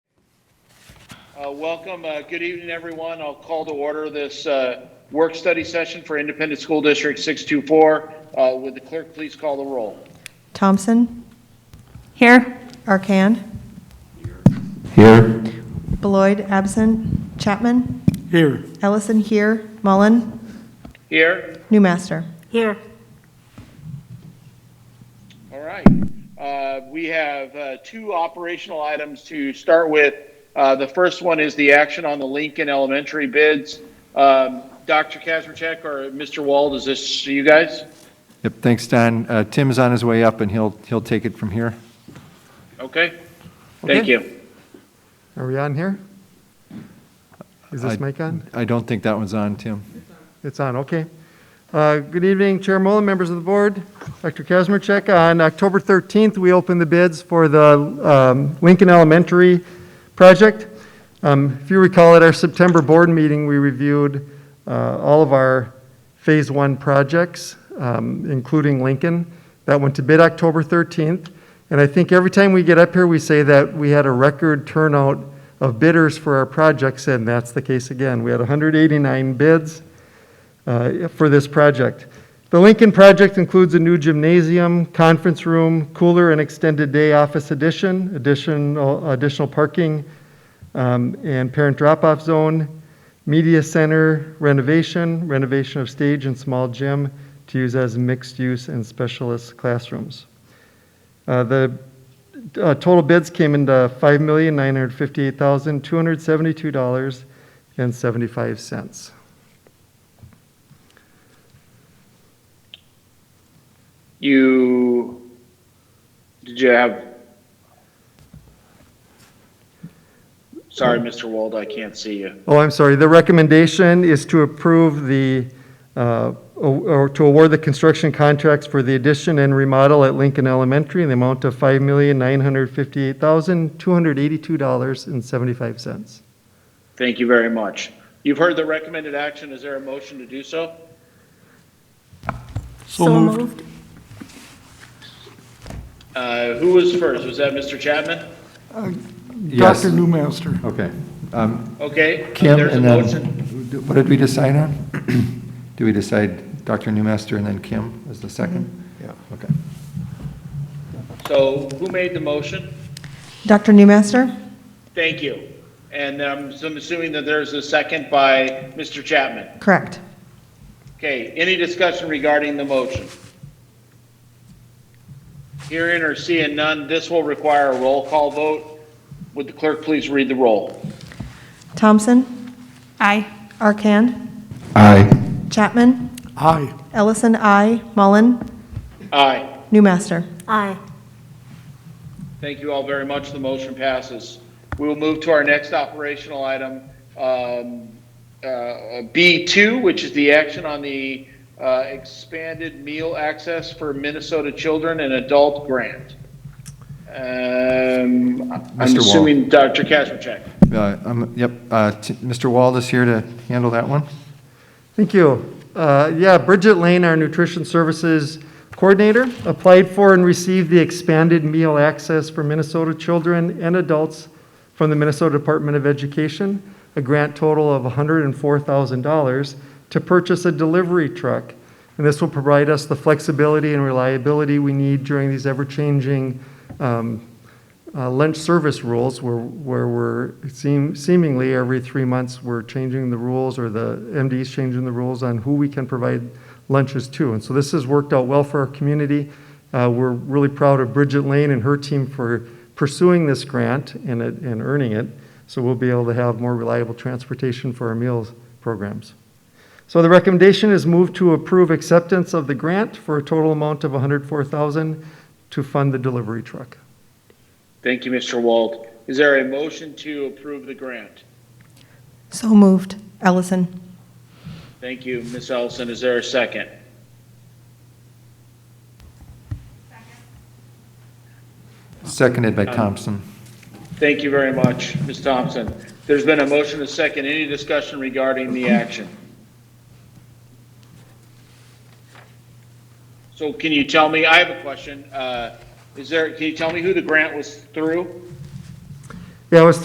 Uh, Welcome, Uh, good evening, everyone. I'll call to order this uh, work-study session for Independent School District 624. Uh, Would the clerk please call the roll? Thompson, Here. Arcan, Here. Beloit, absent, Chapman, Here. Ellison here, Mullen, Here? Newmaster. Here. All right. Uh, We have uh, two operational items to start with. Uh, The first one is the action on the Lincoln Elementary bids. Um, Dr. Kazmierczak or Mr. Wald, is this you guys? Yep, thanks, Don. Uh, Tim's on his way up, and he'll, he'll take it from here. Okay? Thank Okay. you. Are we on here? Is I- this mic on? I don't think that one's on, Tim. It's on, okay. Uh, Good evening, Chair Mullen, members of the board, Dr. Kazmierczak. On October 13th, we opened the bids for the um, Lincoln Elementary project. Um, If you recall, at our September board meeting, we reviewed uh, all of our Phase 1 projects, um, including Lincoln. That went to bid October 13th. And I think every time we get up here, we say that we had a record turnout of bidders for our projects, and that's the case again. We had 189 bids uh, for this project. The Lincoln project includes a new gymnasium, conference room, cooler and extended day office addition, additional, additional parking, um, and parent drop-off zone, media center renovation, renovation of stage and small gym to use as mixed-use and specialist classrooms. Uh, The uh, total bids came into $5,958,272.75. You, did you have? Sorry, Mr. Wald, I can't see you. Oh, I'm sorry. The recommendation is to approve the, uh, o- or to award the construction contracts for the addition and remodel at Lincoln Elementary in the amount of $5,958,282.75. Thank you very much. You've heard the recommended action. Is there a motion to do so? So moved. Uh, Who was first? Was that Mr. Chapman? Yes. Dr. Newmaster. Okay. Um, Okay. uh, Kim, there's a and motion. then, what did we decide on? Do we decide Dr. Newmaster and then Kim as the second? Mm-hmm. Yeah. Okay. So who made the motion? Dr. Newmaster, Thank you. And um, so I'm assuming that there's a second by Mr. Chapman. correct. Okay, any discussion regarding the motion? Hearing or seeing none, this will require a roll call vote. Would the clerk please read the roll? Thompson, Aye. Arcan, Aye. Chapman, Aye. Ellison, I, Mullen, Aye. Newmaster. Aye. Thank you all very much. The motion passes. We will move to our next operational item, um, uh, B2, which is the action on the uh, expanded meal access for Minnesota children and adult grant. Um, Wall. I'm assuming Dr. Kazmierczak. Uh, um, Yep, uh, T- Mr. Wald is here to handle that one. Thank you. Uh, Yeah, Bridget Lane, our Nutrition Services Coordinator, applied for and received the expanded meal access for Minnesota children and adults from the Minnesota Department of Education, a grant total of $104,000 to purchase a delivery truck. And this will provide us the flexibility and reliability we need during these ever-changing um, uh, lunch service rules where, where we're seem, seemingly every three months, we're changing the rules or the MD's changing the rules on who we can provide lunches to. And so this has worked out well for our community. Uh, we're really proud of Bridget Lane and her team for pursuing this grant and, it- and earning it. So we'll be able to have more reliable transportation for our meals programs. So the recommendation is moved to approve acceptance of the grant for a total amount of 104,000 to fund the delivery truck. Thank you, Mr. Wald. Is there a motion to approve the grant? So moved. Ellison, Thank you, Ms. Ellison. Is there a second? Seconded by Thompson. Thank you very much, Ms. Thompson. There's been a motion to second. Any discussion regarding the action? So can you tell me, I have a question. Uh, Is there, can you tell me who the grant was through? Yeah, it was